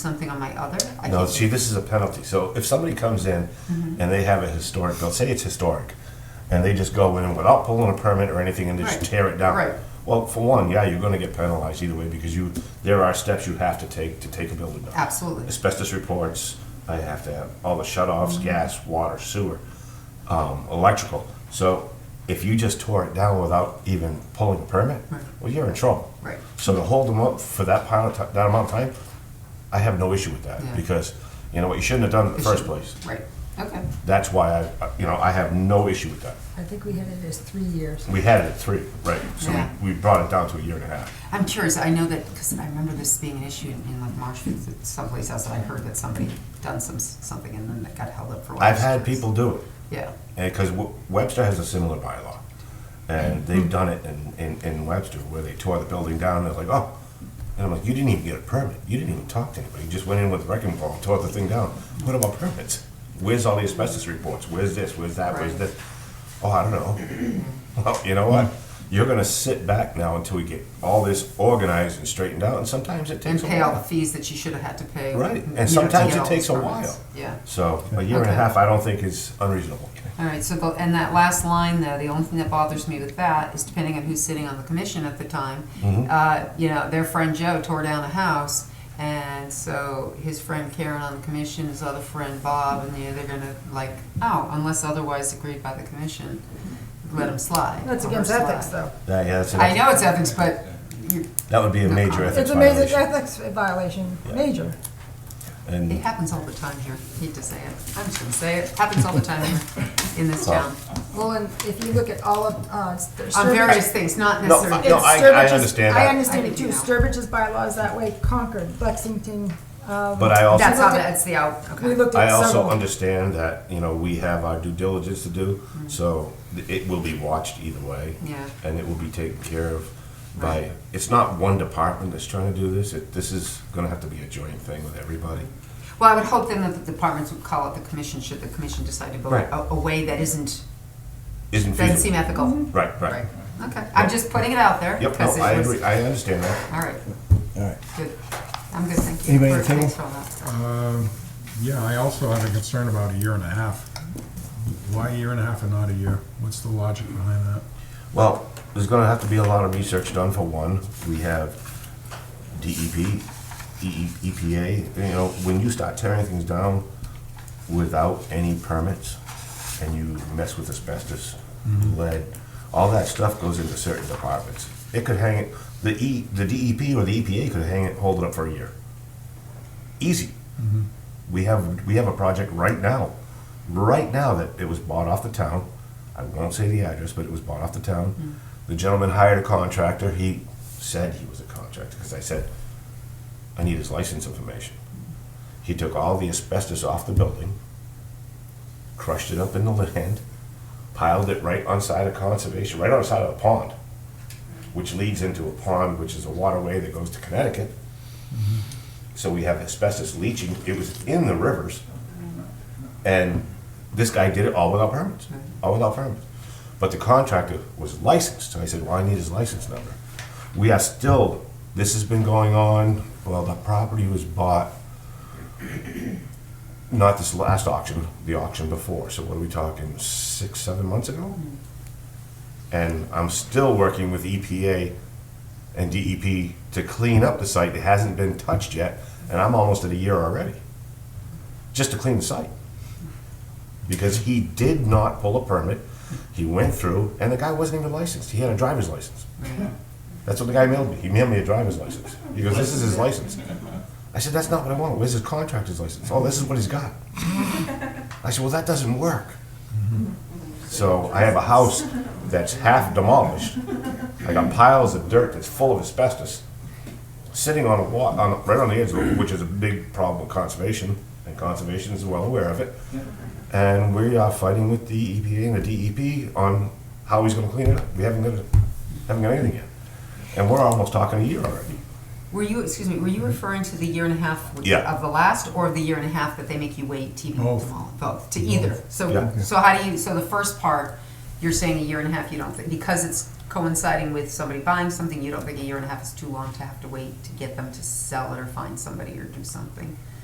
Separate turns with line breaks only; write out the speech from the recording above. something on my other? I Mm-hmm.
No,
think-
see, this is a penalty. So if somebody comes in and they have a historic, they'll say it's historic, and they just go in without pulling a permit or anything and just
Right.
tear it down.
Right.
Well, for one, yeah, you're gonna get penalized either way because you, there are steps you have to take to take a building down.
Absolutely.
Asbestos reports, I have to have all the shut-offs,
Mm-hmm.
gas, water, sewer, um, electrical. So if you just tore it down without even pulling a permit,
Right.
well, you're in trouble.
Right.
So to hold them up for that pile of ti- that amount of time, I have no issue with that
Yeah.
because you know what you shouldn't have done it in the
It
first
shouldn't.
place.
Right, okay.
That's why I, you know, I have no issue with that.
I think we had it as three years.
We had it at three, right? So
Yeah.
we, we brought it down to a year and a half.
I'm curious, I know that, because I remember this being an issue in- in like Marshfield, someplace else, and I heard that somebody done some, something and then that got held up for.
I've had
years.
people do it
Yeah,
because Webster has a similar bylaw, and
Mm-hmm.
they've done it in, in, in Webster where they tore the building down. They're like, oh, and I'm like, you didn't even get a permit. You didn't even talk to anybody. You just went in with a wrecking ball and tore the thing down. What about permits? Where's all the asbestos reports? Where's this? Where's that? Where's
Right.
this? Oh, I don't know. Well, you know what?
Mm-hmm.
You're gonna sit back now until we get all this organized and straightened out, and sometimes it
and
takes a while.
pay all the fees that you should have had to pay.
Right,
you know,
and
to
sometimes
get
it
all
takes a
these permits.
while.
Yeah.
So a year and a
Okay.
half, I don't think is unreasonable.
All right, so the, and that last line though, the only thing that bothers me with that is depending on who's sitting on the commission at the time, uh, you know, their friend Joe tore down a house, and so his friend Karen on the commission, his other friend Bob, and you know, they're gonna like, oh, unless otherwise agreed by the commission, let him slide.
That's
let
against
her
ethics,
slide.
though.
That, yeah, that's,
I
an-
know it's ethics, but you,
that would be a
No
major
comment.
ethics
It's a major
violation.
ethics violation,
Yeah.
major.
it
And,
happens all the time here, hate to say it, I'm just gonna say it, happens all the time here in this town,
Well, and if you look at all of, uh, s- there's
on various
Sturbridge-
things, not
No, I-
necessarily.
no,
it's
I
Sturbridge's-
understand
I
that.
understand
I
it
do
too.
now.
Sturbridge's bylaws that way, Concord, Lexington, um.
but I also.
That's how,
look at-
that's the out, okay.
We looked
I
at
also
several.
understand that, you know, we have our due diligence to do, so th- it will be watched either way.
Mm-hmm. Yeah.
And it will be taken care of by,
Right.
it's not one department that's trying to do this, it, this is gonna have to be a joint thing with everybody.
Well, I would hope then that the departments would call out the commission should the commission decide to go
Right.
a, a way that isn't,
Isn't
doesn't seem
feasible.
ethical.
Mm-hmm.
Right, right.
Right, okay, I'm just putting it out there.
Yep, no,
because it
I
was-
agree, I understand that.
All right,
All right.
good, I'm good, thank you.
Anybody at
for-
the table?
thanks for all that.
Uh, Yeah, I also have a concern about a year and a half. Why a year and a half and not a year? What's the logic behind that?
Well, there's gonna have to be a lot of research done for one. We have E DEP, EE EPA, E you know, when you start tearing things down without any permits and you mess with asbestos, lead, all that stuff goes into certain departments. It could hang it, the E, the DEP or the EPA could hang it, hold it up for a year. Easy. We have, we have a project right now, right now that it was bought off the town. I won't say the address, but it was bought off the town. The gentleman hired a contractor. He said he was a contractor, because I said, I need his license information. He took all the asbestos off the building, crushed it up in the land, piled it right on side of conservation, right on side of the pond, which leads into a pond, which is a waterway that goes to Connecticut. So we have asbestos leaching. It was in the rivers. And this guy did it all without permits, all without permits. But the contractor was licensed, so I said, well, I need his license number. We are still, this has been going on, well, the property was bought, not this last auction, the auction before, so what are we talking, six, seven months ago? And I'm still working with EPA and DEP to clean up the site, it hasn't been touched yet, and I'm almost at a year already, just to clean the site because he did not pull a permit. He went through, and the guy wasn't even licensed. He had a driver's license. That's what the guy mailed me. He mailed me a driver's license. He goes, "This is his license." I said, "That's not what I want. Where's his contractor's license? Oh, this is what he's got." I said, "Well, that doesn't work." So I have a house that's half demolished. I got piles of dirt that's full of asbestos sitting on a wa, on, right on the edge of it, which is a big problem with conservation, and conservation is well aware of it. And we are fighting with the EPA and the DEP on how he's gonna clean it up. We haven't got, haven't got anything yet. And we're almost talking a year already.
Were you, excuse me, were you referring to the year and a half w-
Yeah.
of the last, or the year and a half that they make you wait to even
Both.
them all? Both, to either,
Yeah.
so, so how do you, so the first part, you're saying a year and a half, you don't think, because it's coinciding with somebody buying something, you don't think a year and a half is too long to have to wait to get them to sell it or find somebody or do something.